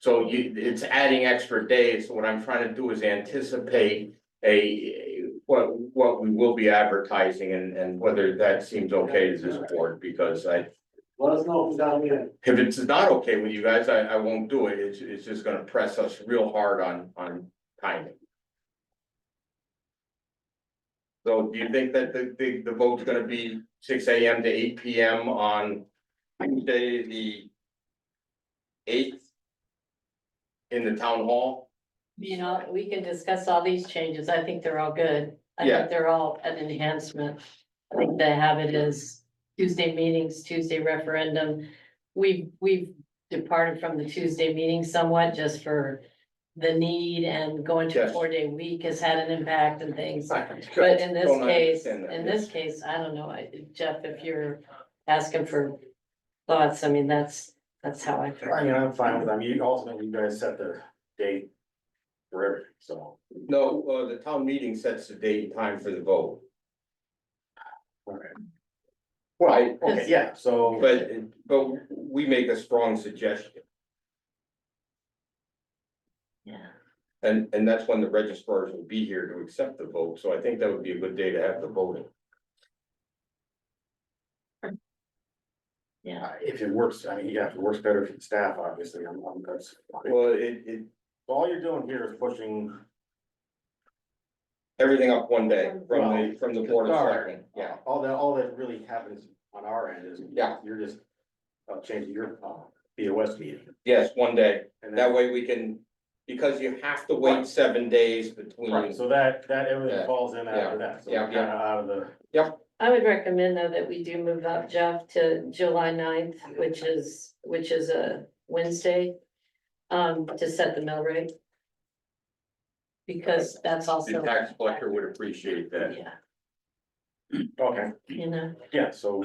So you, it's adding extra days, so what I'm trying to do is anticipate a, what, what we will be advertising and, and whether that seems okay to this board, because I. Let us know if it's down here. If it's not okay with you guys, I, I won't do it, it's, it's just gonna press us real hard on, on timing. So do you think that the, the, the vote's gonna be six AM to eight PM on Tuesday, the eighth? In the town hall? You know, we can discuss all these changes. I think they're all good. I Yeah. think they're all an enhancement. I think the habit is Tuesday meetings, Tuesday referendum. We've, we've departed from the Tuesday meeting somewhat just for the need and going to a Yes. four-day week has had an impact and things. But But in this case, in this case, I don't know, I- Jeff, if you're asking for thoughts, I mean, that's, that's how I feel. I mean, I'm fine with them. You ultimately, you guys set the date for everything, so. No, uh, the town meeting sets the date and time for the vote. Alright. Right, Okay, yeah, so. But, but we make a strong suggestion, Yeah. and, and that's when the registrars will be here to accept the vote, so I think that would be a good day to have the voting. Yeah. Uh, If it works, I mean, yeah, if it works better for the staff, obviously, I'm, I'm, that's. Well, it, it, All you're doing here is pushing, everything up one day from the, from the board of Sorry. selectmen, yeah. all that, all that really happens on our end is. Yeah. You're just, uh, changing your, uh, BOS meeting. Yes, one day, And that that, way we can, because you have to wait seven days between, so that, that Yeah. everything falls in after that, so Yeah, we're kinda out of the. I would recommend though that we do move up, Jeff, to July 9th, which is, which is a Wednesday. Um, to set the mill rate. Because that's also. the tax collector would appreciate that. Yeah, Okay, you know, yeah, so.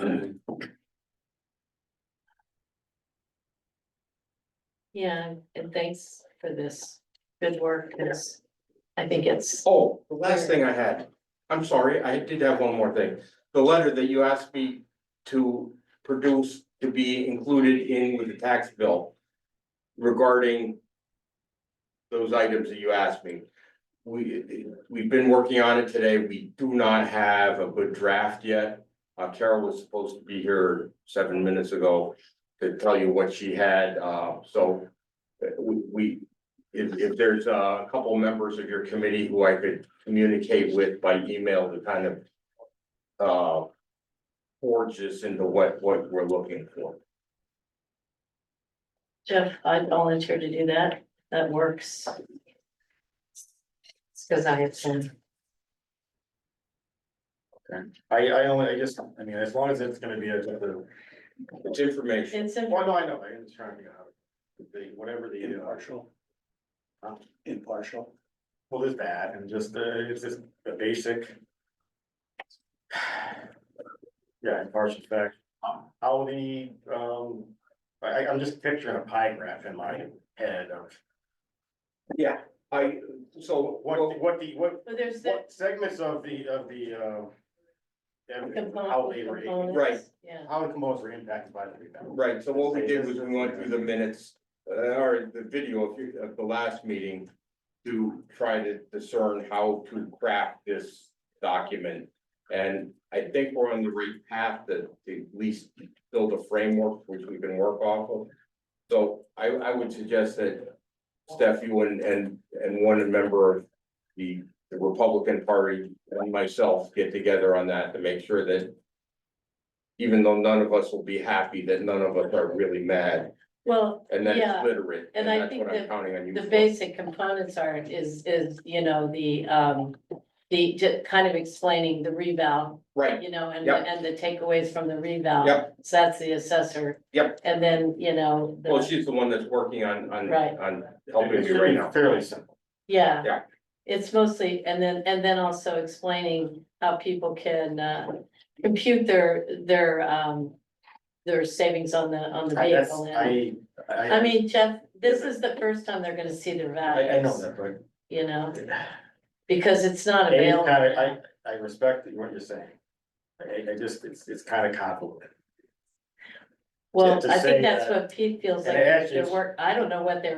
yeah, and thanks for this good work, 'cause I think it's, Oh, the last thing I had, I'm sorry, I did have one more thing. The letter that you asked me to produce to be included in with the tax bill regarding those items that you asked me. We, we've been working on it today. We do not have a good draft yet. Uh, Carol was supposed to be here seven minutes ago to tell you what she had, uh, so uh, we, we, if, if there's uh, a couple members of your committee who I could communicate with by email to kind of. Uh. Forge this into what, what we're looking for. Jeff, I volunteer to do that, that works. It's because I have some, I, I only, I just, I mean, as long as it's gonna be a, the, It's information. it's in well, no, I know, I'm just trying to figure out. The, whatever the. uh, Impartial. Impartial. Well, there's that, and just, uh, it's just the basic. Yeah, impartial fact, how the, um, I, I- I'm just picturing a pie graph in my head of. Yeah, I, so What, what the, what, Well, there's the what segments of the, of the, uh. everything, How they were, component, Right. components, yeah. how the components were impacted by the rebound. Right, so what we did was we went through the minutes, uh, or the video of, your- of the last meeting. To try to discern how to craft this document. And I think we're on the right path to, to at least build a framework which we can work off of. So I, I would suggest that Steph, you and, and, and one member of the, the Republican Party and myself get together on that to make sure that even though none of us will be happy, that none of us are really mad Well, and that it's Yeah, literate. and I that's think what I'm that Counting on you. the for. basic components are, is, is, you know, the, um, the, ju- kind of explaining the rebound, Right, you know, and, Yep. and the takeaways from the rebound. Yep. So that's the assessor. Yep. And then, you know, well, the, she's the one that's working on, on, Right. on helping It's me right fairly, now. fairly simple. yeah. Yeah. It's mostly, and then, and then also explaining how people can, uh, compute their, their, um, their savings on the, on the I, that's, vehicle. And- I, I. I mean, Jeff, this is the first time they're gonna see their I, values. I know that, but. You know, And because it's not it's available. kinda, I, I respect what you're saying. I, I just, it's, it's kinda convoluted. Well, to I say think that's that- what Pete feels uh, and like, it actually their is- work, I don't know what their